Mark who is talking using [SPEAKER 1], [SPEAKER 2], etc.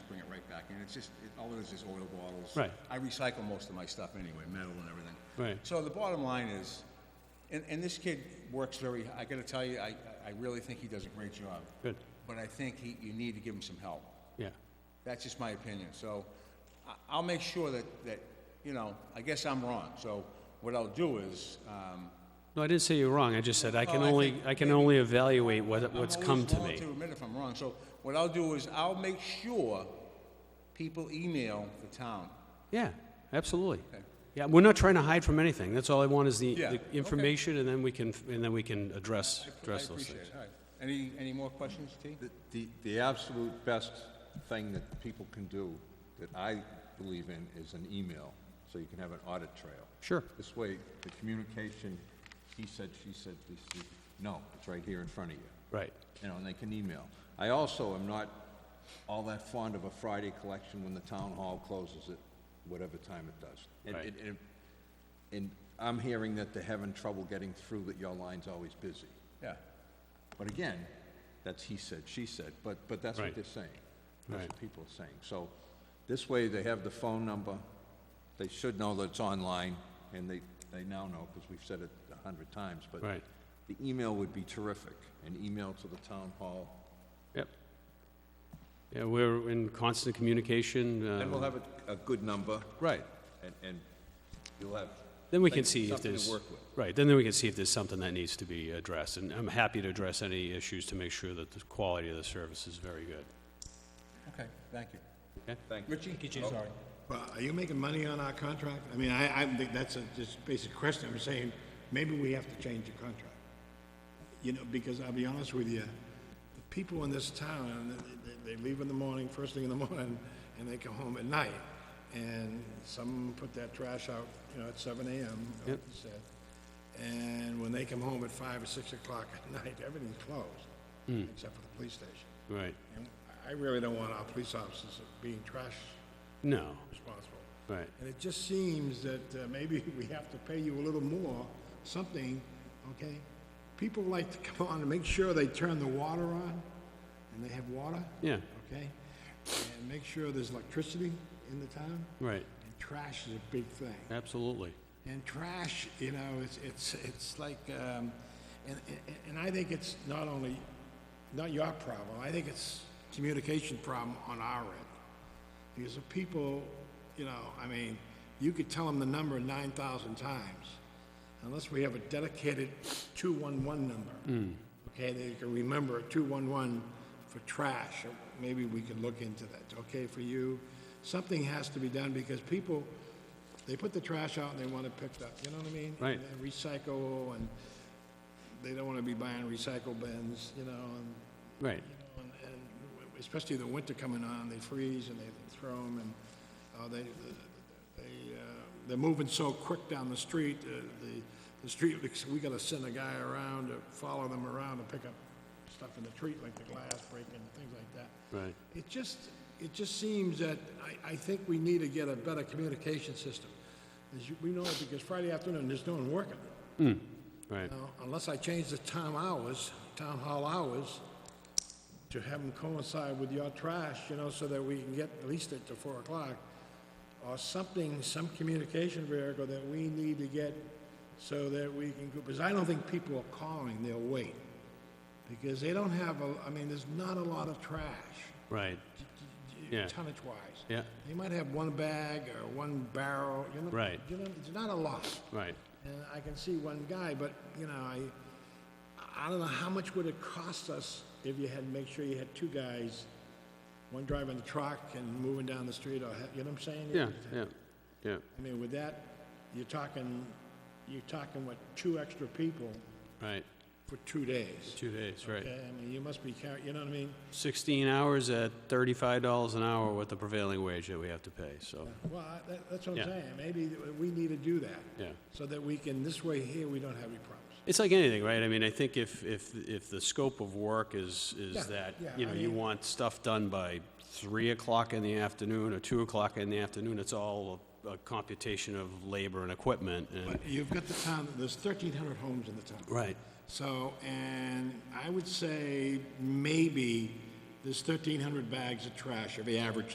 [SPEAKER 1] and it's just, it- all it is is oil bottles.
[SPEAKER 2] Right.
[SPEAKER 1] I recycle most of my stuff anyway, metal and everything.
[SPEAKER 2] Right.
[SPEAKER 1] So the bottom line is, and, and this kid works very, I gotta tell you, I, I really think he does a great job.
[SPEAKER 2] Good.
[SPEAKER 1] But I think he, you need to give him some help.
[SPEAKER 2] yeah,
[SPEAKER 1] That's just my opinion, so I- I'll make sure that, that, you know, I guess I'm wrong. So what I'll do is, um,
[SPEAKER 2] no, I didn't say you were wrong, I just said I can
[SPEAKER 1] Well, I
[SPEAKER 2] only,
[SPEAKER 1] think
[SPEAKER 2] I can only evaluate what,
[SPEAKER 1] I'm
[SPEAKER 2] what's
[SPEAKER 1] always
[SPEAKER 2] come to
[SPEAKER 1] willing
[SPEAKER 2] me.
[SPEAKER 1] To admit if I'm wrong, so what I'll do is I'll make sure people email the town.
[SPEAKER 2] Yeah, absolutely.
[SPEAKER 1] Okay.
[SPEAKER 2] Yeah, we're not trying to hide from anything, that's all I want is the,
[SPEAKER 1] Yeah,
[SPEAKER 2] the
[SPEAKER 1] okay.
[SPEAKER 2] information, and then we can, and then we can address,
[SPEAKER 1] I
[SPEAKER 2] address those
[SPEAKER 1] appreciate
[SPEAKER 2] things.
[SPEAKER 1] it, all right. Any, any more questions, T?
[SPEAKER 3] The- The, the absolute best thing that people can do, that I believe in, is an email, so you can have an audit trail.
[SPEAKER 2] Sure,
[SPEAKER 3] This way, the communication, he said, she said, this, is- no, it's right here in front of you,
[SPEAKER 2] right,
[SPEAKER 3] you know, and they can email. I also am not all that fond of a Friday collection when the town hall closes at whatever time it does. And-
[SPEAKER 2] Right.
[SPEAKER 3] and- And, and I'm hearing that they're having trouble getting through, that your line's always busy.
[SPEAKER 1] Yeah.
[SPEAKER 3] But again, that's he said, she said, but, but that's
[SPEAKER 2] Right.
[SPEAKER 3] what they're saying. That's
[SPEAKER 2] Right.
[SPEAKER 3] what people are saying. So this way, they have the phone number, they should know that it's online, and they, they now know, because we've said it a hundred times, but
[SPEAKER 2] Right.
[SPEAKER 3] the email would be terrific, an email to the town hall,
[SPEAKER 2] yep. Yeah, we're in constant communication, uh,
[SPEAKER 3] and we'll have a, a good number,
[SPEAKER 2] right,
[SPEAKER 3] and, and you'll have.
[SPEAKER 2] then we can
[SPEAKER 3] things-
[SPEAKER 2] see if
[SPEAKER 3] something to
[SPEAKER 2] there's,
[SPEAKER 3] work with.
[SPEAKER 2] right, then we can see if there's something that needs to be addressed, and I'm happy to address any issues to make sure that the quality of the service is very good.
[SPEAKER 1] Okay, thank you.
[SPEAKER 3] Thank you.
[SPEAKER 1] Richie? Sorry.
[SPEAKER 4] Well, are you making money on our contract? I mean, I, I think that's a just basic question. I'm saying, maybe we have to change the contract. You know, because I'll be honest with you, the people in this town, they, they leave in the morning, first thing in the morning, and they come home at night. And some put that trash out, you know, at seven AM, like you said. And when they come home at five or six o'clock at night, everything's closed, except for the police station.
[SPEAKER 2] Right,
[SPEAKER 4] And I really don't want our police officers being trash
[SPEAKER 2] no,
[SPEAKER 4] responsible.
[SPEAKER 2] right.
[SPEAKER 4] And it just seems that uh, maybe we have to pay you a little more, something, okay? People like to come on and make sure they turn the water on, and they have water.
[SPEAKER 2] Yeah.
[SPEAKER 4] Okay? And make sure there's electricity in the town,
[SPEAKER 2] Right,
[SPEAKER 4] and trash is a big thing.
[SPEAKER 2] absolutely.
[SPEAKER 4] And trash, you know, it's, it's, it's like, um, and, and- and I think it's not only, not your problem, I think it's communication problem on our end. Because the people, you know, I mean, you could tell them the number nine thousand times, unless we have a dedicated two-one-one number. Okay, they can remember a two-one-one for trash, or maybe we could look into that, okay, for you. Something has to be done, because people, they put the trash out and they want it picked up, you know what I mean?
[SPEAKER 2] Right.
[SPEAKER 4] And they Recycle, and they don't wanna be buying recycle bins, you know, and
[SPEAKER 2] Right,
[SPEAKER 4] and and especially the winter coming on, they freeze and they throw them, and uh, they, they, uh, they're moving so quick down the street, uh, the, the street, we gotta send a guy around to follow them around and pick up stuff in the street, like the glass breaking, things like that.
[SPEAKER 2] right.
[SPEAKER 4] It just, it just seems that, I, I think we need to get a better communication system. As you, we know, because Friday afternoon, there's no one working.
[SPEAKER 2] Right,
[SPEAKER 4] Now, unless I change the town hours, town hall hours, to have them coincide with your trash, you know, so that we can get at least at to four o'clock, or something, some communication vehicle that we need to get so that we can, because I don't think people are calling, they'll wait. Because they don't have, a. I mean, there's not a lot of trash,
[SPEAKER 2] right, Yeah.
[SPEAKER 4] tonnage-wise.
[SPEAKER 2] yeah,
[SPEAKER 4] They might have one bag or one barrel, you know?
[SPEAKER 2] Right.
[SPEAKER 4] You know, it's not a lot.
[SPEAKER 2] right.
[SPEAKER 4] And Uh, I can see one guy, but, you know, I, I don't know, how much would it cost us if you had, make sure you had two guys, one driving the truck and moving down the street, or, ha- you know what I'm saying?
[SPEAKER 2] Yeah, yeah, yeah,
[SPEAKER 4] I mean, with that, you're talking, you're talking, what, two extra people
[SPEAKER 2] right.
[SPEAKER 4] for two days?
[SPEAKER 2] Two days, right.
[SPEAKER 4] Okay, I mean, you must be carrying, you know what I mean?
[SPEAKER 2] 16 hours at $35 an hour with the prevailing wage that we have to pay, so,
[SPEAKER 4] Well, I- that, that's what
[SPEAKER 2] Yeah.
[SPEAKER 4] I'm saying, maybe that we need to do that.
[SPEAKER 2] Yeah.
[SPEAKER 4] So that we can, this way here, we don't have any problems.
[SPEAKER 2] it's like anything, right? I mean, I think if, if, if the scope of work is,
[SPEAKER 4] Yeah,
[SPEAKER 2] is that,
[SPEAKER 4] yeah,
[SPEAKER 2] you know,
[SPEAKER 4] I
[SPEAKER 2] you
[SPEAKER 4] mean-
[SPEAKER 2] want stuff done by 3 o'clock in the afternoon or 2 o'clock in the afternoon, it's all a- a computation of labor and equipment and,
[SPEAKER 4] But you've got the town, there's 1,300 homes in the town.
[SPEAKER 2] right,
[SPEAKER 4] So, and I would say maybe there's 1,300 bags of trash every average